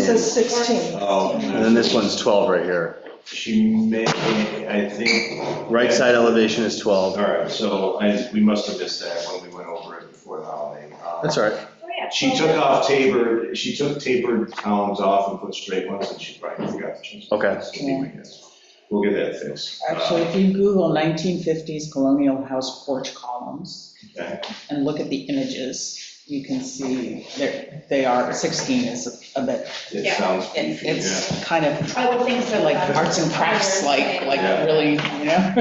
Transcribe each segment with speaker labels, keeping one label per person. Speaker 1: says 16.
Speaker 2: Oh,
Speaker 3: And then this one's 12 right here.
Speaker 2: she may, I think,
Speaker 3: Right side elevation is 12.
Speaker 2: all right, so I, we must have missed that when we went over it before the holiday. Um,
Speaker 3: That's all right.
Speaker 2: She took off tapered, she took tapered columns off and put straight ones, and she probably forgot to change.
Speaker 3: Okay.
Speaker 2: those. That's my guess. We'll get that fixed. Uh,
Speaker 4: Actually, if you Google 1950s colonial house porch columns
Speaker 2: Okay.
Speaker 4: and look at the images, you can see they're- they are, 16 is a bit,
Speaker 2: It
Speaker 5: Yeah.
Speaker 2: sounds
Speaker 4: it-
Speaker 2: goofy, yeah.
Speaker 4: it's kind of
Speaker 5: I would think so.
Speaker 4: like arts and crafts, like, like really, you know?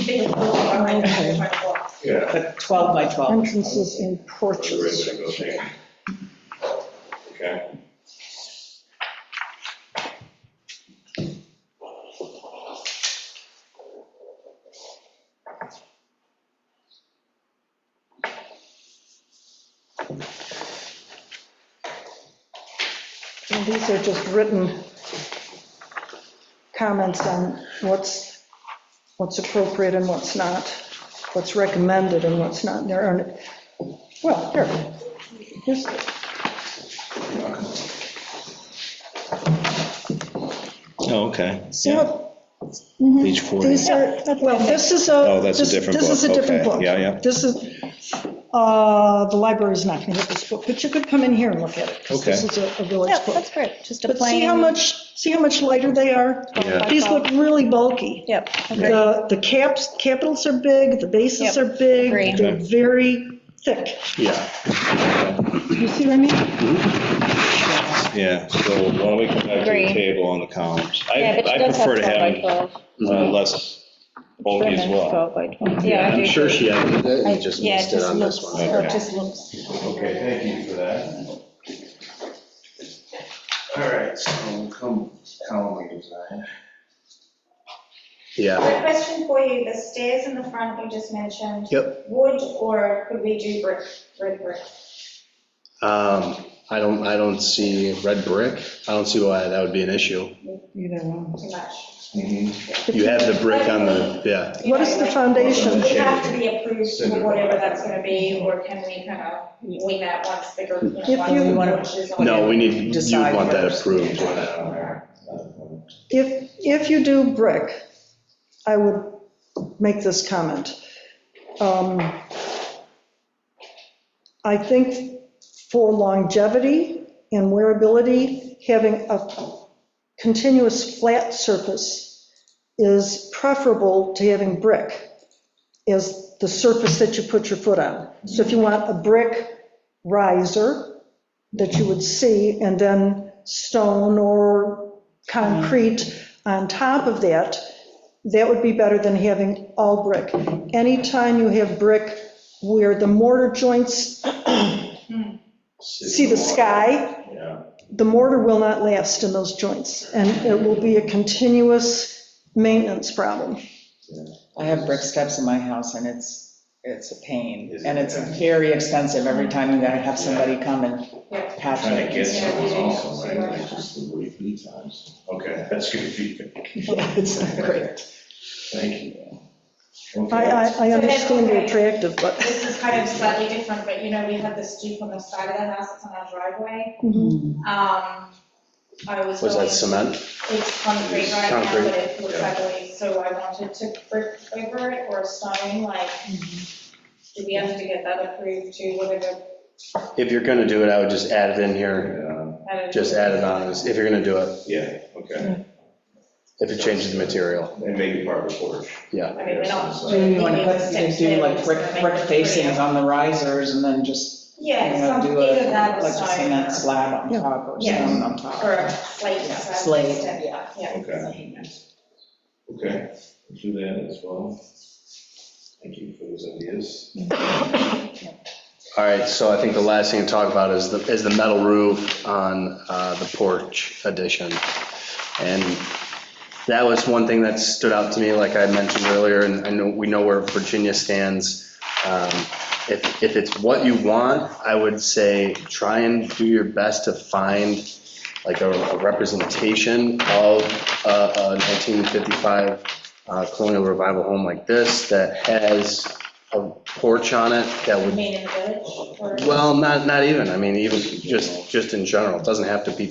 Speaker 2: Yeah. Yeah.
Speaker 4: But 12 by 12.
Speaker 1: Entrances and
Speaker 2: That's the
Speaker 1: porches.
Speaker 2: right way to go, thank you. Okay.
Speaker 1: And these are just written comments on what's, what's appropriate and what's not, what's recommended and what's not. There aren't, well, here, here's,
Speaker 6: Oh, okay.
Speaker 1: see
Speaker 6: Yeah.
Speaker 1: what? Mhm.
Speaker 6: Page 40.
Speaker 1: These are, well, this is a.
Speaker 6: Oh, that's a
Speaker 1: this-
Speaker 6: different
Speaker 1: This is a
Speaker 6: book.
Speaker 1: different
Speaker 6: Okay.
Speaker 1: book.
Speaker 6: Yeah, yeah.
Speaker 1: This is, uh, the library's not going to get this book, but you could come in here and look at it. 'cause This is
Speaker 6: Okay.
Speaker 1: a a village
Speaker 7: Yeah,
Speaker 1: book.
Speaker 7: that's great, just a
Speaker 1: But see how
Speaker 7: plain,
Speaker 1: much, see how much lighter they are?
Speaker 6: Yeah.
Speaker 1: These look really bulky.
Speaker 7: yep, okay.
Speaker 1: The, the caps, capitals are big, the bases
Speaker 7: Yep,
Speaker 1: are
Speaker 7: agree.
Speaker 1: big, they're very thick.
Speaker 6: Yeah,
Speaker 1: You see what I mean?
Speaker 6: yeah. So why don't we come back to
Speaker 7: Agree.
Speaker 6: the table on the columns?
Speaker 7: Yeah,
Speaker 6: I
Speaker 7: but she
Speaker 6: I
Speaker 7: does have
Speaker 6: prefer
Speaker 7: 12
Speaker 6: to
Speaker 7: by
Speaker 6: have
Speaker 7: 12.
Speaker 6: uh, less bulky as well.
Speaker 7: 12 by 12,
Speaker 5: Yeah,
Speaker 7: yeah.
Speaker 5: I
Speaker 3: I'm
Speaker 5: do
Speaker 3: sure she has it,
Speaker 7: I-
Speaker 3: it just
Speaker 7: yeah, it
Speaker 3: missed it
Speaker 7: just
Speaker 3: on this one.
Speaker 6: Okay.
Speaker 7: just looks.
Speaker 2: Okay, thank you for that. All right, so we'll come, column redesign.
Speaker 3: Yeah,
Speaker 5: A question for you, the stairs in the front you just mentioned.
Speaker 3: Yep.
Speaker 5: Wood or could we do brick, red brick?
Speaker 3: um, I don't, I don't see red brick, I don't see why that would be an issue.
Speaker 4: Either one.
Speaker 5: Too much.
Speaker 2: Mhm.
Speaker 3: You have the brick on the, yeah,
Speaker 5: You
Speaker 1: What
Speaker 5: know,
Speaker 1: is the
Speaker 5: like,
Speaker 1: foundation?
Speaker 5: Would it have to be approved for
Speaker 2: Cinder.
Speaker 5: whatever that's going to be, or can we kind of wing that once the group?
Speaker 1: If you-
Speaker 3: no, we need, you
Speaker 4: Decide
Speaker 3: want that
Speaker 4: first.
Speaker 3: approved.
Speaker 1: If, if you do brick, I would make this comment. Um, I think for longevity and wearability, having a continuous flat surface is preferable to having brick as the surface that you put your foot on. So if you want a brick riser that you would see, and then stone or concrete on top of that, that would be better than having all brick. Anytime you have brick where the mortar joints see the sky,
Speaker 2: Yeah,
Speaker 1: the mortar will not last in those joints, and it will be a continuous maintenance problem.
Speaker 4: I have brick steps in my house and it's, it's a pain.
Speaker 2: Is it?
Speaker 4: And it's very expensive every time you gotta have somebody come and patch
Speaker 2: trying to
Speaker 4: it.
Speaker 2: get someone also, right? Like, just the way three times. Okay, that's good feedback.
Speaker 4: It's not great.
Speaker 2: Thank you.
Speaker 1: I,
Speaker 2: Okay.
Speaker 1: I, I understand they're attractive, but,
Speaker 5: This is kind of slightly different, but you know, we had the stoop on the side of the house, it's on our driveway. Um, I was.
Speaker 3: Was that
Speaker 5: going-
Speaker 3: cement?
Speaker 5: It's concrete right now,
Speaker 3: Concrete,
Speaker 5: but it looks ugly, so I wanted to brick over it or stone, like,
Speaker 4: Mm-hmm.
Speaker 5: do we have to get that approved to whatever?
Speaker 3: If you're gonna do it, I would just add it in here,
Speaker 2: Yeah,
Speaker 5: I don't know.
Speaker 3: just add it on, if you're gonna do it,
Speaker 2: Yeah, okay,
Speaker 3: if it changes the material,
Speaker 2: and maybe part of the porch. uh,
Speaker 3: yeah.
Speaker 5: I mean, we're not.
Speaker 4: Do you wanna put,
Speaker 5: Maybe
Speaker 4: you
Speaker 5: it's
Speaker 4: do like
Speaker 5: six
Speaker 4: brick,
Speaker 5: layers,
Speaker 4: brick
Speaker 5: make it
Speaker 4: facings
Speaker 5: pretty.
Speaker 4: on the risers and then just, you
Speaker 5: Yeah,
Speaker 4: know,
Speaker 5: something
Speaker 4: do
Speaker 5: either that
Speaker 4: a,
Speaker 5: or
Speaker 4: like a
Speaker 5: stone.
Speaker 4: cement slab on
Speaker 1: Yeah.
Speaker 4: top or
Speaker 5: Yeah.
Speaker 4: stone on top.
Speaker 5: Or a slate.
Speaker 4: Yeah,
Speaker 5: so I
Speaker 4: slate,
Speaker 5: placed it.
Speaker 4: yeah.
Speaker 2: Okay. Okay, let's do that as well. Thank you for those ideas.
Speaker 3: All right, so I think the last thing to talk about is the, is the metal roof on uh, the porch addition. And that was one thing that stood out to me, like I mentioned earlier, and I know, we know where Virginia stands. Um, If, if it's what you want, I would say try and do your best to find like a a representation of a a 1955 uh, colonial revival home like this that has a porch on it that
Speaker 5: You
Speaker 3: would
Speaker 5: mean in the village or?
Speaker 3: well, not, not even, I mean, even just, just in general, it doesn't have to be